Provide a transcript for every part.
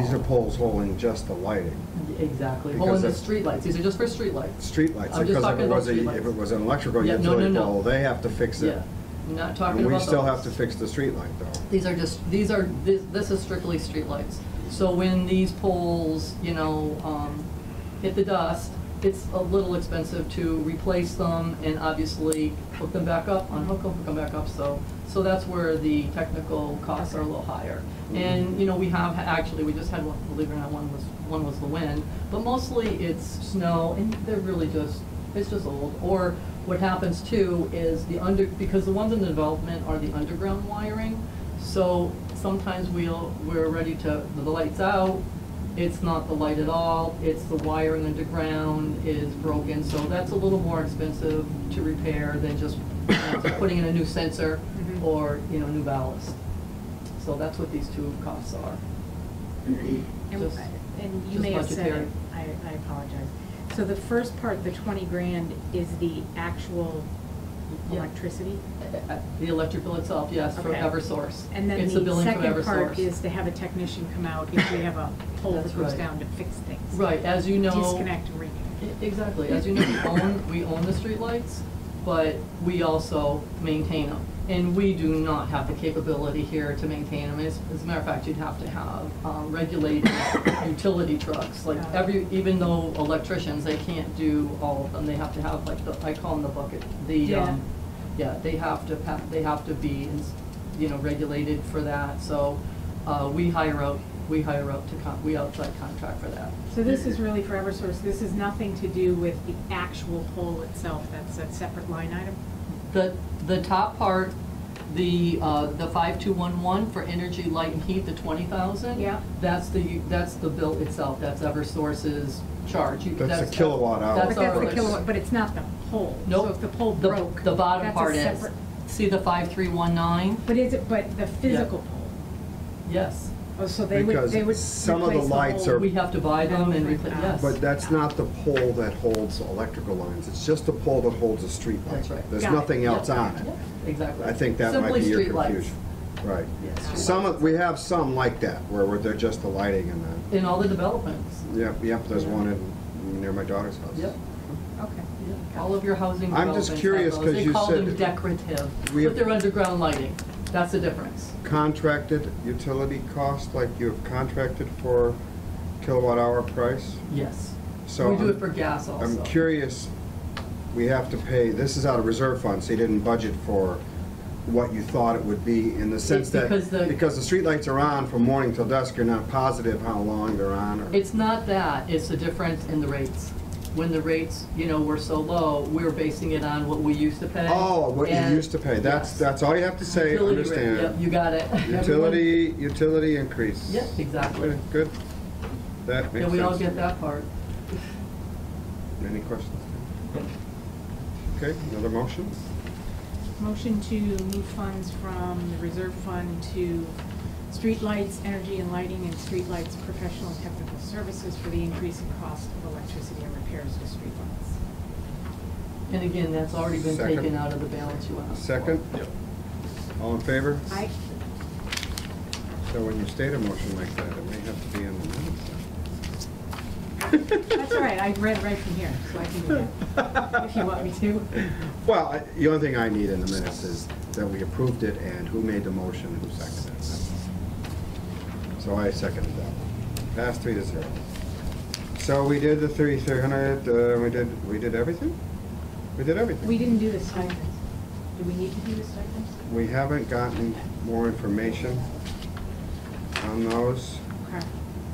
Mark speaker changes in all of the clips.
Speaker 1: picture poles holding just the lighting,
Speaker 2: Exactly. Oh,
Speaker 1: Because
Speaker 2: and the
Speaker 1: of-
Speaker 2: streetlights, these are just for streetlights.
Speaker 1: streetlights,
Speaker 2: I'm
Speaker 1: because
Speaker 2: just
Speaker 1: if
Speaker 2: talking
Speaker 1: it
Speaker 2: about
Speaker 1: was a,
Speaker 2: streetlights.
Speaker 1: if it was an electrical
Speaker 2: Yeah, no, no,
Speaker 1: utility
Speaker 2: no.
Speaker 1: pole, they have to fix it.
Speaker 2: Yeah, I'm not talking
Speaker 1: And
Speaker 2: about
Speaker 1: we still have to
Speaker 2: those.
Speaker 1: fix the streetlight though.
Speaker 2: These are just, these are, this, this is strictly streetlights. So when these poles, you know, um, hit the dust, it's a little expensive to replace them and obviously hook them back up, unhook them, hook them back up, so, so that's where the technical costs are a little higher. And, you know, we have, actually, we just had one, believe it or not, one was, one was the wind, but mostly it's snow and they're really just, it's just old. Or what happens too is the under, because the ones in development are the underground wiring, so sometimes we'll, we're ready to, the light's out, it's not the light at all, it's the wiring underground is broken, so that's a little more expensive to repair than just you know, putting in a new sensor
Speaker 3: Mhm.
Speaker 2: or, you know, new ballast. So that's what these two costs are.
Speaker 3: And
Speaker 2: Just-
Speaker 3: and you
Speaker 2: just
Speaker 3: may have said,
Speaker 2: budgetary.
Speaker 3: it. I, I apologize. So the first part, the twenty grand, is the actual
Speaker 2: Yeah.
Speaker 3: electricity?
Speaker 2: Uh, uh, The electric bill itself, yes, from
Speaker 3: Okay.
Speaker 2: Eversource.
Speaker 3: And then
Speaker 2: It's the
Speaker 3: the
Speaker 2: billing from
Speaker 3: second part
Speaker 2: Eversource.
Speaker 3: is to have a technician come out if we have a pole
Speaker 2: That's
Speaker 3: that goes
Speaker 2: right.
Speaker 3: down to fix things.
Speaker 2: Right, as you know.
Speaker 3: Disconnect and reconnect.
Speaker 2: E- Exactly, as you know, we own, we own the streetlights, but we also maintain them. And we do not have the capability here to maintain them. As, as a matter of fact, you'd have to have um, regulated utility trucks. Like
Speaker 3: Yeah.
Speaker 2: every, even though electricians, they can't do all of them, they have to have like the, I call them the bucket, the,
Speaker 3: Yeah.
Speaker 2: um, yeah, they have to, pa- they have to be, ins- you know, regulated for that. So, uh, we hire out, we hire out to, con- we outside contract for that.
Speaker 3: So this is really for Eversource, this is nothing to do with the actual pole itself, that's a separate line item?
Speaker 2: The, the top part, the, uh, the 5211 for energy, light, and heat, the 20,000.
Speaker 3: Yeah.
Speaker 2: That's the, that's the bill itself, that's Eversource's charge. You-
Speaker 1: That's the kilowatt hour.
Speaker 2: That's
Speaker 3: But that's
Speaker 2: our.
Speaker 3: the kilowatt, but it's not the pole.
Speaker 2: Nope.
Speaker 3: So if the pole
Speaker 2: The-
Speaker 3: broke.
Speaker 2: The bottom
Speaker 3: that's a
Speaker 2: part is,
Speaker 3: separate-
Speaker 2: see the 5319?
Speaker 3: But is it, but the physical pole,
Speaker 2: Yes,
Speaker 3: oh, so they would, they would
Speaker 1: Because
Speaker 3: replace the
Speaker 1: some of the lights
Speaker 3: whole-
Speaker 1: are-
Speaker 2: we have to buy them and replace, yes.
Speaker 1: But that's not the pole that holds electrical lines, it's just the pole that holds a streetlight.
Speaker 2: That's right.
Speaker 1: There's
Speaker 3: Got it.
Speaker 1: nothing
Speaker 2: Yep,
Speaker 1: else on it.
Speaker 2: yep, Exactly.
Speaker 1: I think that might be your confusion. Right.
Speaker 2: Simply streetlights. Yes,
Speaker 1: Some,
Speaker 2: streetlights.
Speaker 1: of- we have some like that, where where they're just the lighting and the,
Speaker 2: In all the developments,
Speaker 1: yep, yep, there's one in, near my daughter's house.
Speaker 2: yep.
Speaker 3: Okay.
Speaker 2: All of your housing
Speaker 1: I'm
Speaker 2: developments
Speaker 1: just
Speaker 2: have
Speaker 1: curious
Speaker 2: those.
Speaker 1: 'cause you
Speaker 2: They
Speaker 1: said
Speaker 2: call them
Speaker 1: that
Speaker 2: decorative,
Speaker 1: we
Speaker 2: but
Speaker 1: have-
Speaker 2: they're underground lighting. That's the difference.
Speaker 1: Contracted utility cost, like you have contracted for kilowatt hour price?
Speaker 2: Yes.
Speaker 1: So
Speaker 2: We do
Speaker 1: I'm-
Speaker 2: it for gas also.
Speaker 1: I'm curious, we have to pay, this is out of reserve funds, so you didn't budget for what you thought it would be in the sense that,
Speaker 2: because the-
Speaker 1: because the streetlights are on from morning till dusk, you're not positive how long they're on or.
Speaker 2: It's not that, it's the difference in the rates. When the rates, you know, were so low, we were basing it on what we used to pay.
Speaker 1: Oh, what you
Speaker 2: and-
Speaker 1: used to pay, that's,
Speaker 2: Yes.
Speaker 1: that's all you have to say,
Speaker 2: Utility rate, Yep,
Speaker 1: understand.
Speaker 2: you got it. Everyone-
Speaker 1: Utility, utility increase.
Speaker 2: Yep, exactly.
Speaker 1: Good, Good, that makes
Speaker 2: Yeah,
Speaker 1: sense.
Speaker 2: we all get that part.
Speaker 1: Any questions? Okay, another motion?
Speaker 3: Motion to move funds from the reserve fund to streetlights, energy and lighting, and streetlights professional technical services for the increase in cost of electricity and repairs to streetlights.
Speaker 2: And again, that's already been
Speaker 1: Second.
Speaker 2: taken out of the balance you asked.
Speaker 1: Second? All in favor?
Speaker 3: I,
Speaker 1: So when you state a motion like that, it may have to be in the minutes.
Speaker 3: that's all right, I read right from here, so I can do that, if you want me to.
Speaker 1: Well, I- the only thing I need in the minutes is that we approved it and who made the motion and who seconded it. So I seconded that one. Passed three to zero. So we did the three, three hundred, uh, we did, we did everything? We did everything.
Speaker 3: We didn't do the stipends. Do we need to do the stipends?
Speaker 1: We haven't gotten more information on those.
Speaker 3: Okay.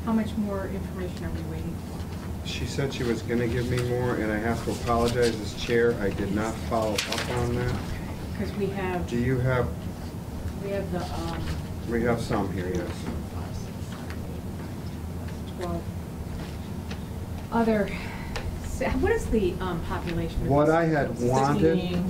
Speaker 3: How much more information are we waiting for?
Speaker 1: She said she was gonna give me more and I have to apologize as chair, I did not follow up on that.
Speaker 3: Because we have,
Speaker 1: Do you have,
Speaker 3: we have the, um,
Speaker 1: we have some here, yes.
Speaker 3: twelve. Other, so what is the, um, population? of
Speaker 1: What
Speaker 3: this?
Speaker 1: I had wanted-
Speaker 2: Sixteen,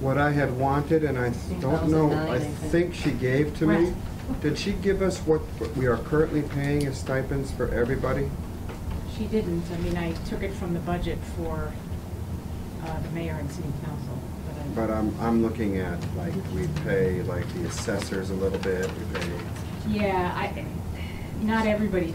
Speaker 1: what I had wanted, and I don't know, I
Speaker 2: 16,009, I
Speaker 1: think
Speaker 2: think.
Speaker 1: she gave to me.
Speaker 3: Right.
Speaker 1: Did she give us what we are currently paying as stipends for everybody?
Speaker 3: She didn't, I mean, I took it from the budget for, uh, the mayor and city council, but I.
Speaker 1: But uh, I'm, I'm looking at, like, we pay, like, the assessors a little bit, we pay
Speaker 3: Yeah, I, not everybody